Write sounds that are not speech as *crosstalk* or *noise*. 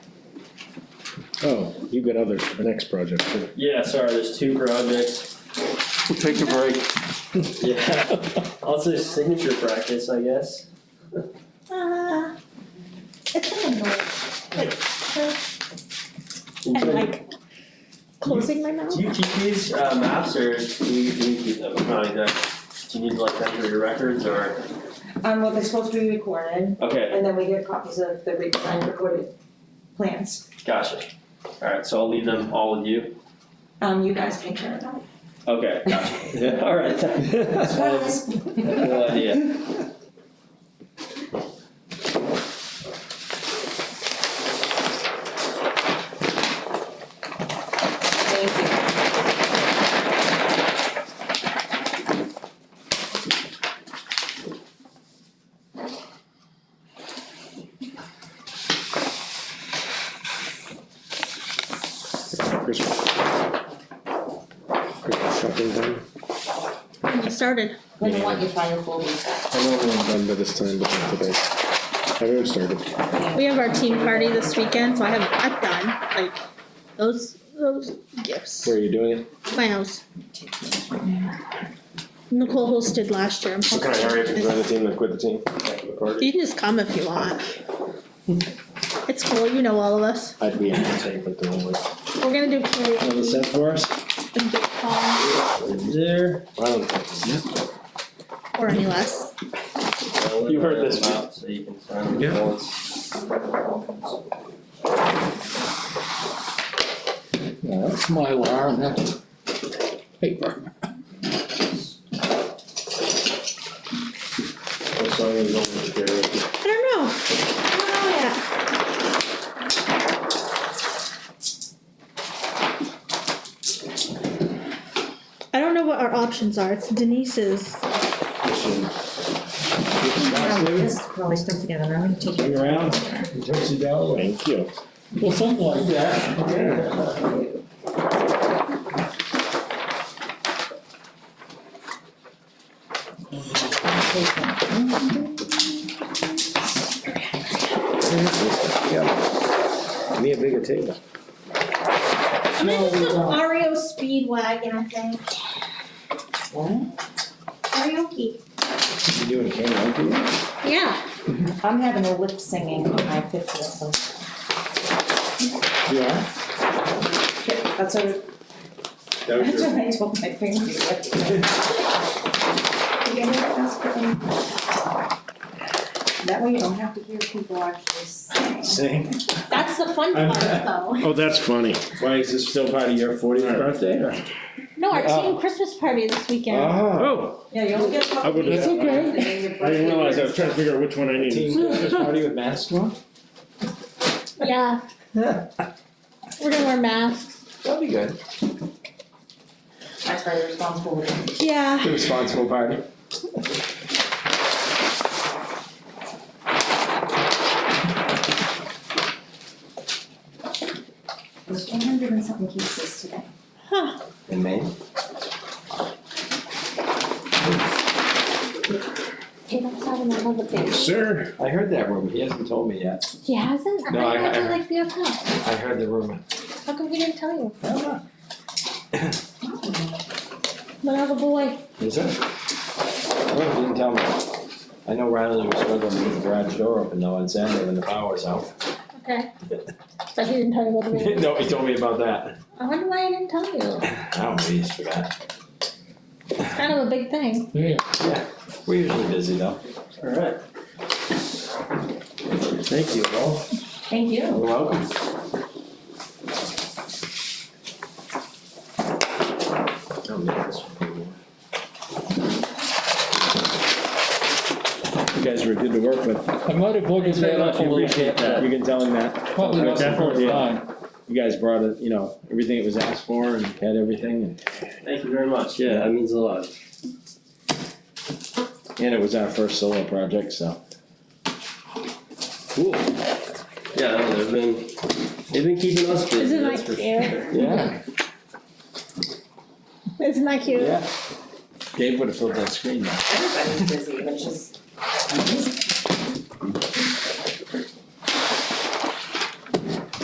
Oh, you've got others for the next project too. Yeah, sorry, there's two projects, We'll take a break. yeah, *laughs* also signature practice, I guess. Uh, it's in the north, like, uh, and like closing my mouth. Do you keep these uh maps or do you do you keep them, not exactly, do you need to like them for your records or, Um, well, they're supposed to be recorded, okay, and then we get copies of the redesigned recorded plans. gotcha. Alright, so I'll leave them all with you, Um, you guys take care of that. okay, gotcha, alright, *laughs* that's one, Surprise! whole idea. Thank you. Christmas. Christmas shopping done. I started. We don't want you filing full detail. I know I'm done by this time, but not today. I haven't started. We have our team party this weekend, so I have that done. Like those those gifts. Where are you doing it? My house. Nicole hosted last year. I'm So can I hurry up and join the team and quit the team after the party? You can just come if you want. It's cool. You know all of us. I'd be in the same, but the only. We're gonna do karaoke set for us? and big pong There. or any less. You heard this map, so you can sign the Yeah. bullets. Yeah, that's Mylar and that's paper. What song is over the karaoke? I don't know. I don't know yet. I don't know what our options are. It's Denise's. Probably stuck together, I'm gonna take Hang around, tipsy down. Oh, Thank you. Well, something like that. Give me a bigger table. I'm gonna just do Ario Speedwagon, I think. What? Karaoke. You doing karaoke? Yeah. I'm having a lip singing on my fiftieth. Yeah. That's what, *laughs* That was that's your, what I told my *laughs* friend. to do. You gotta ask for them. That way you don't have to hear people actually sing. sing. That's the fun I'm- part, though. Oh, that's funny. Why, is this still part of your fortieth birthday or? No, our Uh, team Christmas party this weekend. Oh. Oh, Yeah, you only get a couple. I would've- days. That's okay. And then your I didn't birthday realize, I is- was trying to figure out which one I needed. *laughs* Team Christmas party with masks on? Yeah. Yeah. We're gonna wear masks. That'd be good. I try to respond fully. Yeah. The responsible party. There's one hundred and something cases today. Huh. In Maine? Hey, that's not another thing. Sir. I heard that rumor, he hasn't told me yet. He hasn't? No, thought I- he had I- to, like the account. I heard the rumor. How come he didn't tell you? Oh, Another boy. Is it? Oh, he didn't tell me. I know Riley was struggling to get the garage door open though on Saturday when the power was out. *laughs* Okay. But he didn't tell you what it was. No, he told me about that. I wonder why he didn't tell you. Oh, he just forgot. It's kind of a big thing. Yeah. We're usually busy though. Alright. Thank you all. Thank you. You're welcome. Oh, man, this would be warm. You guys were good to work with. I might have looked that up a little bit. You can tell him that. Probably I wasn't the definitely first did. time. You guys brought it, you know, everything it was asked for and had everything and. Thank you very much, yeah, that means a lot. And it was our first solo project, so. Cool. Yeah, no, they've been, they've been keeping us busy, Isn't that's that for cute? Yeah, Isn't that cute? yeah. Dave would have filled that screen now. Everybody's busy, which is amazing.